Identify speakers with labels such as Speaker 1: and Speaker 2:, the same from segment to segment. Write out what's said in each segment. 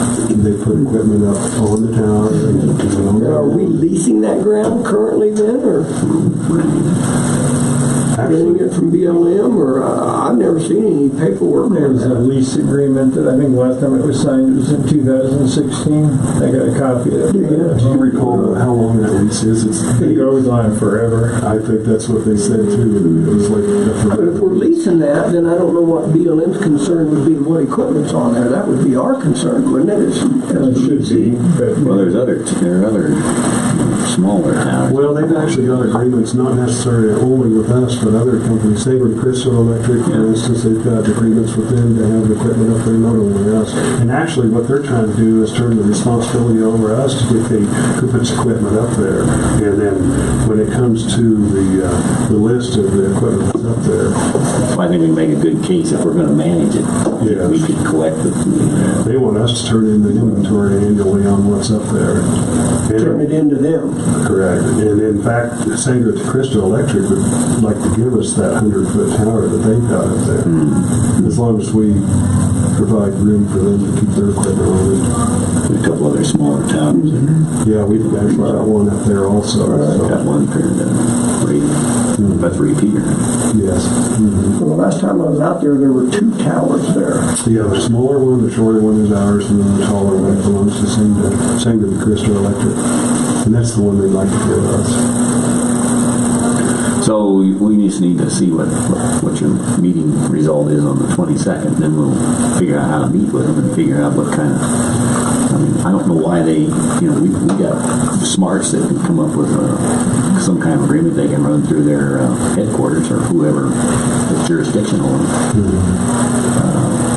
Speaker 1: they put equipment up on the tower. and, you know,
Speaker 2: And are we leasing that ground currently then, or renting
Speaker 1: actually,
Speaker 2: it from BLM, or, uh, I've never seen any paperwork
Speaker 3: There
Speaker 2: on
Speaker 3: was a
Speaker 2: that.
Speaker 3: lease agreement that I think last time it was signed, it was in 2016. I got a copy of
Speaker 1: Do you
Speaker 3: it.
Speaker 1: recall uh, how long that lease is? It's,
Speaker 3: It goes on forever.
Speaker 1: I think that's what they said too. It was like.
Speaker 2: But if we're leasing that, then I don't know what BLM's concern would be, what equipment's on there, that would be our concern, wouldn't it? As-
Speaker 3: It
Speaker 2: as-
Speaker 3: should be,
Speaker 4: Well,
Speaker 3: but
Speaker 4: there's other, there are other smaller towns.
Speaker 1: Well, they've actually got agreements, not necessarily only with us, but other companies. Sabre and Crystal Electric, for instance, they've got agreements with them to have equipment up there, not only us. And actually, what they're trying to do is turn the responsibility over us to get the Cooper's equipment up there. And then when it comes to the, uh, the list of the equipment that's up there,
Speaker 4: I think we make a good case if we're gonna manage it.
Speaker 1: Yeah.
Speaker 4: We could collect the,
Speaker 1: they want us to turn in the inventory annually on what's up there. And-
Speaker 2: Turn it into them.
Speaker 1: Correct. And in fact, Sanger to Crystal Electric would like to give us that hundred foot tower that they've got up there. As long as we provide room for them to keep their equipment on
Speaker 4: a couple other smaller towns. that
Speaker 1: it. Yeah, we've actually got one up there also, so,
Speaker 4: Got one paired up, that's repeater.
Speaker 1: yes. Mhm.
Speaker 2: Well, the last time I was out there, there were two towers there.
Speaker 1: Yeah, the smaller one, the shorter one is ours, and then the taller one belongs to Sanger, Sanger to Crystal Electric. And that's the one they'd like to give us.
Speaker 4: So we- we just need to see what, what your meeting result is on the twenty-second, then we'll figure out how to meet with them and figure out what kind of, I mean, I don't know why they, you know, we, we got smarts that can come up with, uh, some kind of agreement they can run through their uh, headquarters or whoever is jurisdictional. Uh,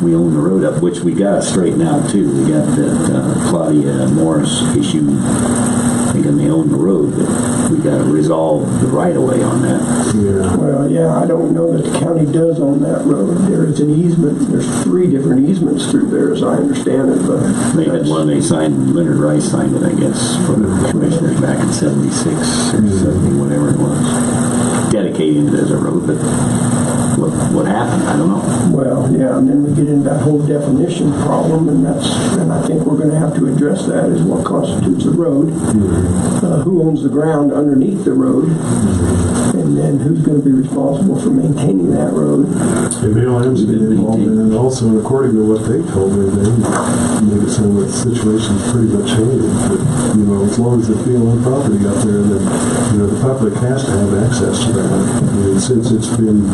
Speaker 4: We own the road up, which we gotta straighten out too, we got that uh, Claudia Morris issue, thinking they own the road, but we gotta resolve the right-of-way on that.
Speaker 1: Yeah.
Speaker 2: Well, yeah, I don't know that the county does own that road. There is an easement, there's three different easements through there, as I understand it, but.
Speaker 4: They had one they signed, Leonard Rice signed it, I guess, for the commissioners back in seventy-six or seventy, whatever it was. Dedicated it as a road, but what, what happened, I don't know.
Speaker 2: Well, yeah, and then we get into that whole definition problem, and that's, and I think we're gonna have to address that, is what constitutes a road?
Speaker 4: Mm-hmm.
Speaker 2: Uh, Who owns the ground underneath the road? And then who's gonna be responsible for maintaining that road?
Speaker 1: And BLM's been involved in it also, and according to what they told me, they made it sound like the situation's pretty much handled. But, you know, as long as it's BLM property out there, then, you know, the public has to have access to that. And since it's been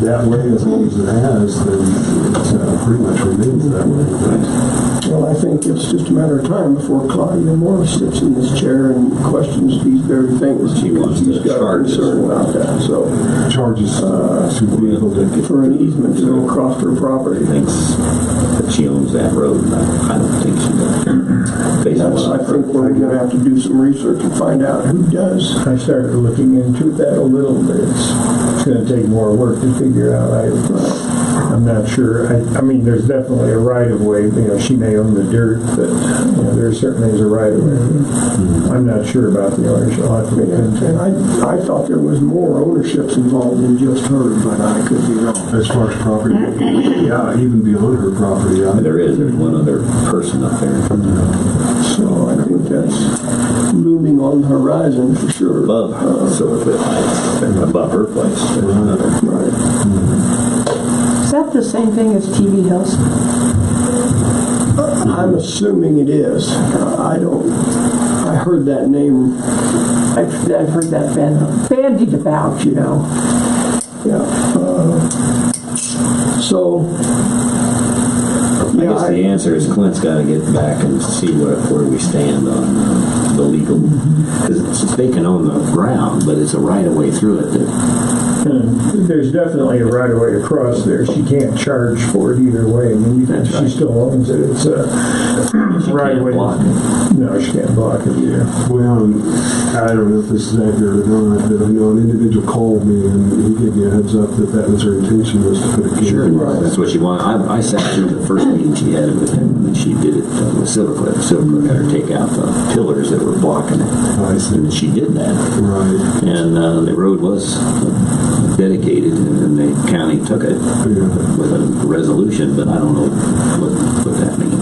Speaker 1: that way as long as it has, then it's uh, pretty much remains that way. But
Speaker 2: Well, I think it's just a matter of time before Claudia Morris sits in this chair and questions these very things.
Speaker 4: She wants to
Speaker 2: She's got a
Speaker 4: charge us.
Speaker 2: Concern about that, so,
Speaker 1: Charges uh, to vehicle to
Speaker 2: for an easement to go across her property.
Speaker 4: Thinks that she owns that road, and I I don't think she does. Based on
Speaker 2: That's, I
Speaker 4: what I've
Speaker 2: think
Speaker 4: heard.
Speaker 2: we're gonna have to do some research and find out who does.
Speaker 3: I started looking into that a little bit. It's it's gonna take more work to figure out. I, I'm not sure. I, I mean, there's definitely a right of way. You know, she may own the dirt, but, you know, there certainly is a right of way. I'm not sure about the ownership. I'll have to look
Speaker 2: And
Speaker 3: into it.
Speaker 2: Mm-hmm. and I, I thought there was more ownerships involved than just her, but I could be wrong.
Speaker 1: as far as property, yeah, even beyond her property. I-
Speaker 4: There is, there's one other person up there
Speaker 2: So I think that's looming on the horizon for sure. Uh,
Speaker 4: above her, so if it, above her place, there's another.
Speaker 2: Right.
Speaker 5: Is that the same thing as TV Hills?
Speaker 2: I'm assuming it is. Uh, I don't, I heard that name,
Speaker 5: I've, I've heard that ban- bandied about, you know.
Speaker 2: yeah. Uh, So,
Speaker 4: I
Speaker 2: yeah,
Speaker 4: guess the
Speaker 2: I,
Speaker 4: answer is Clint's got to get back and see where, where we stand on uh, the legal, because they can own the ground, but it's a right of way through it that
Speaker 3: And There's definitely a right of way across there. She can't charge for it either way. I mean, even if
Speaker 4: That's
Speaker 3: she
Speaker 4: right.
Speaker 3: still owns it, it's a
Speaker 4: she
Speaker 3: right
Speaker 4: can't
Speaker 3: of way.
Speaker 4: block it.
Speaker 3: No, she can't block it either.
Speaker 1: Well, I don't know if this is accurate or not, but I know an individual called me and he gave me a heads up that that was her intention was to put a gate.
Speaker 4: Sure, that's what she wanted. I, I sat through the first meeting she had with him, and she did it uh, with Silvercliff. Silvercliff had her take out the pillars that were blocking it,
Speaker 1: Oh, I see.
Speaker 4: and she did that.
Speaker 1: Right.
Speaker 4: And uh, the road was dedicated, and then the county took it
Speaker 1: Yeah.
Speaker 4: with a resolution, but I don't know what, what that means.